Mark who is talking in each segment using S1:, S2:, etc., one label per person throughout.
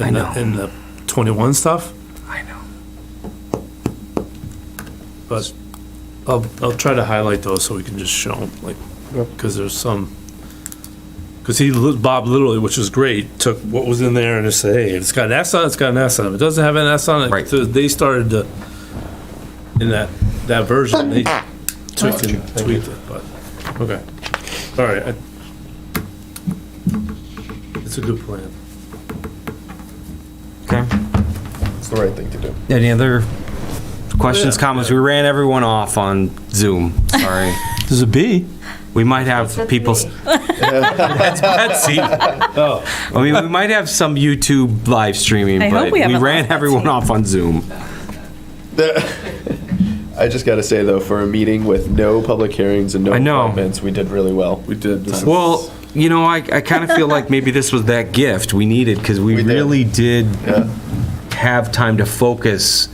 S1: I know.
S2: In the 21 stuff,
S1: I know.
S2: but I'll, I'll try to highlight those so we can just show them, like, because there's some, because he, li- Bob literally, which is great, took what was in there and just said, hey, it's got an S on it, it's got an S on it. If It doesn't have an S on
S1: Right.
S2: it. So they started to, in that, that version, they tweaked and tweaked it, but, okay. All right. I- It's a good plan.
S1: Okay.
S3: It's the right thing to do.
S1: Any other questions,
S2: Yeah,
S1: comments?
S2: yeah.
S1: We ran everyone off on Zoom. Sorry.
S4: There's a B.
S1: We might have
S5: That's
S1: people.
S5: me.
S1: That's Betsy. I
S2: Oh,
S1: mean, we might have some YouTube live streaming,
S5: I hope
S1: but
S5: we have a
S1: ran
S5: lot of
S1: everyone
S5: Betsy.
S1: off on Zoom.
S3: I just got to say though, for a meeting with no public hearings and no
S1: I know.
S3: comments, we did really well. We did. This is-
S1: Well, you know, I, I kind of feel like maybe this was that gift we needed because we,
S3: We did.
S1: really did
S3: Yeah.
S1: have time to focus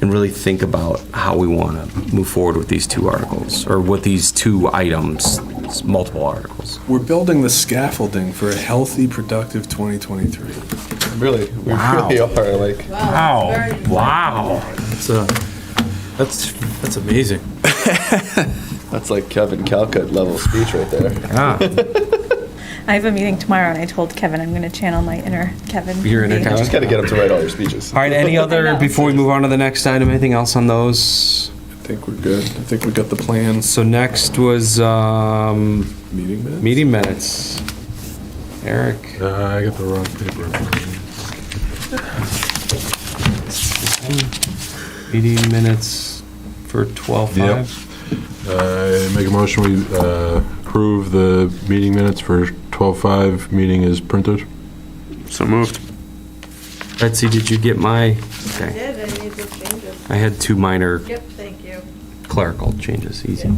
S1: and really think about how we want to move forward with these two articles or with these two items, s- multiple articles.
S6: We're building the scaffolding for a healthy, productive 2023.
S3: really, we
S1: Wow.
S3: really are like.
S1: Wow. Wow.
S2: it's a, that's, that's amazing.
S3: That's like Kevin Calcutt level speech right there.
S5: I have a meeting tomorrow, and I told Kevin I'm going to channel my inner Kevin.
S1: Your inner
S5: Be-
S1: Kevin?
S3: Just got to get him to write all your speeches.
S1: All right, any
S5: I
S1: other,
S5: know.
S1: before we move on to the next item, anything else on those?
S6: I think we're good. I think we got the plans.
S1: So next was um,
S6: Meeting minutes?
S1: meeting minutes. Eric,
S4: Uh, I got the wrong paper.
S1: meeting minutes for 12:05.
S4: I make a motion, we uh, approve the meeting minutes for 12:05, meeting is printed.
S7: So moved.
S1: Betsy, did you get my,
S8: I
S1: okay,
S8: did, I need to change it.
S1: I had two minor
S8: Yep, thank you.
S1: clerical changes, easy.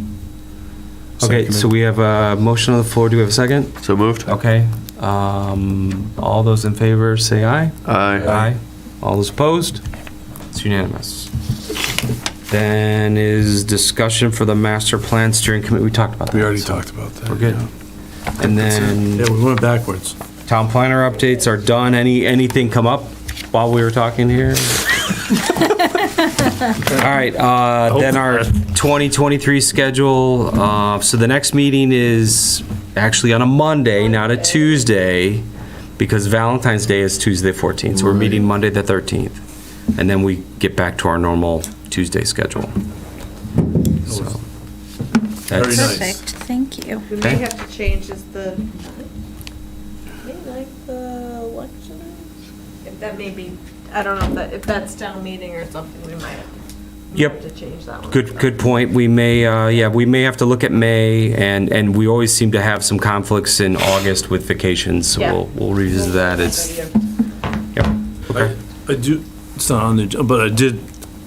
S1: Okay, so we have a motion on the floor, do we have a second?
S7: So moved.
S1: Okay, um, all those in favor, say aye.
S7: Aye.
S1: Aye. All those opposed? It's unanimous. Then is discussion for the master plan steering committee. We talked about that.
S6: We already
S1: so
S6: talked about that.
S1: We're good. And then
S2: Yeah, we went backwards.
S1: town planner updates are done. Any, anything come up while we were talking here? All right, uh, then our 2023 schedule, uh, so the next meeting is actually on a Monday, not a Tuesday, because Valentine's Day is Tuesday 14th, so we're meeting Monday the 13th. And then we get back to our normal Tuesday schedule. So,
S2: Very
S1: that's-
S2: nice.
S5: Perfect. Thank you.
S8: We
S1: Okay.
S8: may have to change is the, may like the election. If that may be, I don't know, if that, if that's town meeting or something, we might we
S1: Yep.
S8: have to change that one.
S1: Good, good point. We may, uh, yeah, we may have to look at May, and, and we always seem to have some conflicts in August with vacations, so
S8: Yeah.
S1: we'll, we'll revisit that. It's,
S8: Yeah.
S1: yep, okay.
S2: I do, it's not on the, ag- but I did,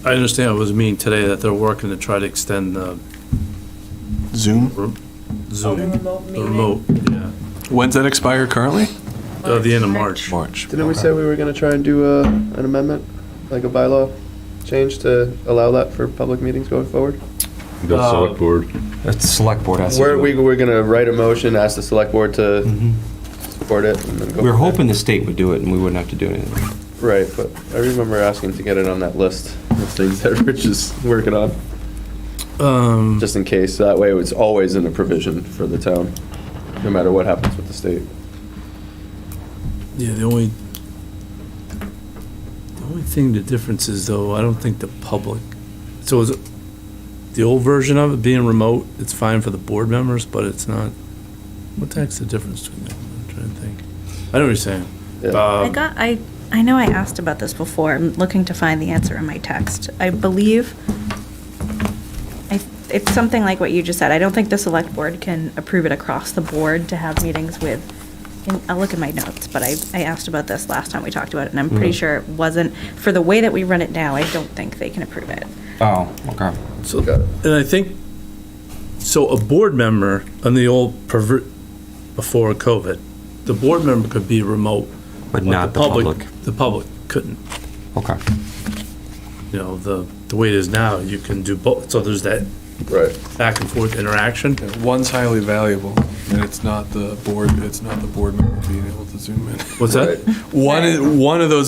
S2: I understand it was mean today that they're working to try to extend the
S6: Zoom.
S2: Zoom.
S8: the remote
S2: Oh, the
S8: meeting?
S2: remote, yeah,
S6: When's that expire currently?
S2: Uh, the end of March.
S6: March.
S3: Didn't we say we were going to try and do a, an amendment, like a bylaw change to allow that for public meetings going forward?
S4: The select board.
S1: It's select board has to
S3: Where
S1: do
S3: we
S1: it. Mm-hmm.
S3: were going to write a motion, ask the select board to support it, and then
S1: We We're
S3: go. from there.
S1: hoping the state would do it, and we wouldn't have to do anything.
S3: Right, but I remember asking to get it on that list of things that Rich is working on,
S2: Um,
S3: just in case. That way, it's always in a provision for the town, no matter what happens with the state.
S2: yeah, the only, the only thing, the difference is though, I don't think the public, so is it, the old version of it being remote, it's fine for the board members, but it's not, what the heck's the difference between that? I'm trying to think. I know what you're saying. Uh,
S3: Yeah.
S2: Um,
S5: I got. I. I know I asked about this before. I'm looking to find the answer in my text. I believe. I. It's something like what you just said. I don't think the select board can approve it across the board to have meetings with. And I'll look at my notes, but I, I asked about this last time we talked about it, and I'm pretty
S1: Hmm.
S5: sure it wasn't for the way that we run it now. I don't think they can approve it.
S1: Oh, okay.
S2: So, and I think, so a board member on the old pervert, before COVID, the board member could be remote.
S1: But not the public.
S2: The public couldn't,
S1: Okay.
S2: you know, the, the way it is now, you can do both, so there's that
S4: Right.
S2: back and forth interaction.
S6: Yeah, One's highly valuable, and it's not the board, it's not the board member being able to zoom in.
S2: What's that?
S6: One, is- one of those